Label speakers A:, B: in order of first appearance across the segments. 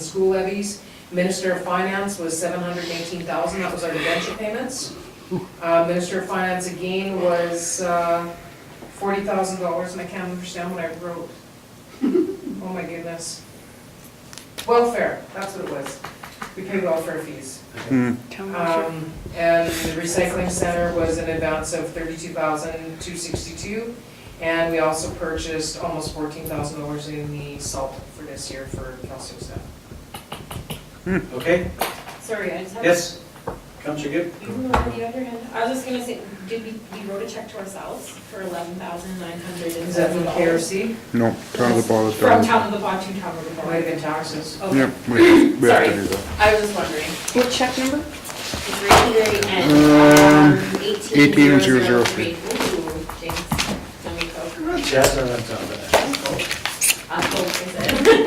A: school levies. Minister of Finance was seven hundred and eighteen thousand, that was our debenture payments. Uh, Minister of Finance again was, uh, forty thousand dollars, and I can't understand what I wrote. Oh my goodness. Welfare, that's what it was. We pay welfare fees. Um, And the recycling center was an advance of thirty-two thousand, two sixty-two. And we also purchased almost fourteen thousand dollars in the salt for this year for Calcasieu.
B: Okay,
C: Sorry, I just have.
B: yes, Counselor Gibb?
C: Even on the other hand, I was just gonna say, did we, we wrote a check to ourselves for eleven thousand nine hundred and
A: Is that
C: seven
A: from
C: dollars?
A: KRC?
D: No, Town of the Ball is
C: From
D: down.
C: Town of the Bog to Town of the
A: It
C: Bog.
A: might have been taxes.
C: Okay.
D: Yeah, we, we have
C: Sorry.
D: to do that.
C: I was just wondering.
E: What check number?
C: It's right here and um, eighteen zero zero
D: 18003.
C: three. Ooh, James, let me go.
B: Jazz on that sound, but-
C: Uh, oh, is it?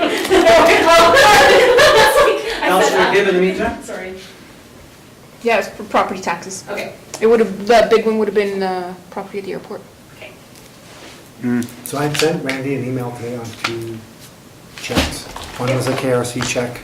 C: I said,
B: Counselor
C: uh,
B: Gibb in the meantime?
C: Sorry,
E: Yeah, it's for property taxes.
C: okay,
E: It would have, the big one would have been, uh, property at the airport.
C: okay.
D: Mm,
F: So I sent Randy an email today on two checks. One was a KRC check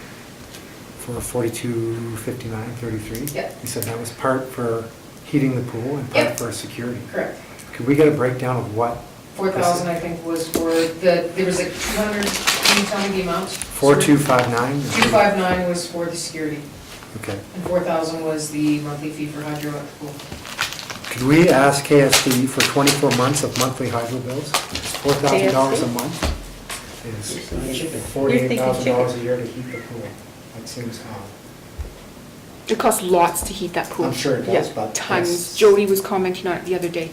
F: for forty-two fifty-nine thirty-three.
A: Yeah.
F: He said that was part for heating the pool and
A: Yeah.
F: part for security.
A: Correct.
F: Could we get a breakdown of what?
A: Four thousand, I think, was for the, there was like two hundred, can you tell me the amount?
F: Four-two-five-nine?
A: Two five nine was for the security,
F: Okay.
A: and four thousand was the monthly fee for hydro at the pool.
F: Could we ask KSD for twenty-four months of monthly hydro bills? Four thousand dollars a
E: KSD?
F: month is forty-eight thousand dollars a year to heat the pool. That seems odd.
E: It costs lots to heat that pool.
F: I'm sure it does,
E: Yeah,
F: but that's-
E: Tons. Jody was commenting on it the other day.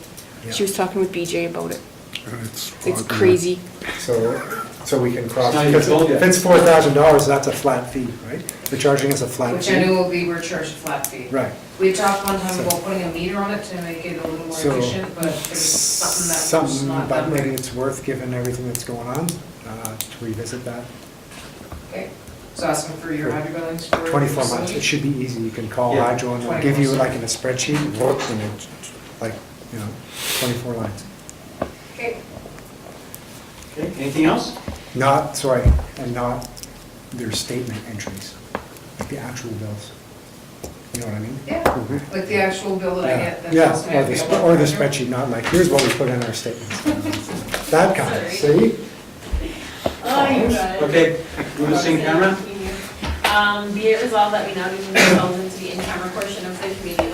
E: She
F: Yeah.
E: was talking with BJ about it.
D: And It's
E: It's
D: hot, yeah.
E: crazy.
F: So, so we can cross,
B: It's not even
F: because
B: sold yet.
F: if it's four thousand dollars, that's a flat fee, right? They're charging us a flat
A: Which I
F: fee.
A: knew we were charged a flat fee.
F: Right.
A: We talked one time
F: So-
A: about putting a meter on it to make it a little more
F: So-
A: efficient, but there's something that was
F: Something,
A: not
F: but
A: done
F: maybe
A: right.
F: it's worth, given everything that's going on, uh, to revisit that.
A: Okay, so ask them for your hydro billings for.
F: Twenty-four months, it
A: facility.
F: should be easy. You can call
B: Yeah.
F: Hydro and they'll give you
A: 24.
F: like in a spreadsheet, look, and it, like, you know, twenty-four lines.
A: Okay,
B: Okay, anything else?
F: Not, sorry, and not their statement entries, like the actual bills. You know what I mean?
A: yeah,
F: Mhm.
A: like the actual bill that I get. that
F: Yeah,
A: tells me
F: or
A: I
F: the,
A: pay
F: sp- or the
A: $100.
F: spreadsheet, not like, here's what we put in our statements. That kind of, see?
C: Oh, you guys.
B: Okay, move this in camera.
C: Um, be it resolved that we now move ourselves into the in-camera portion of the community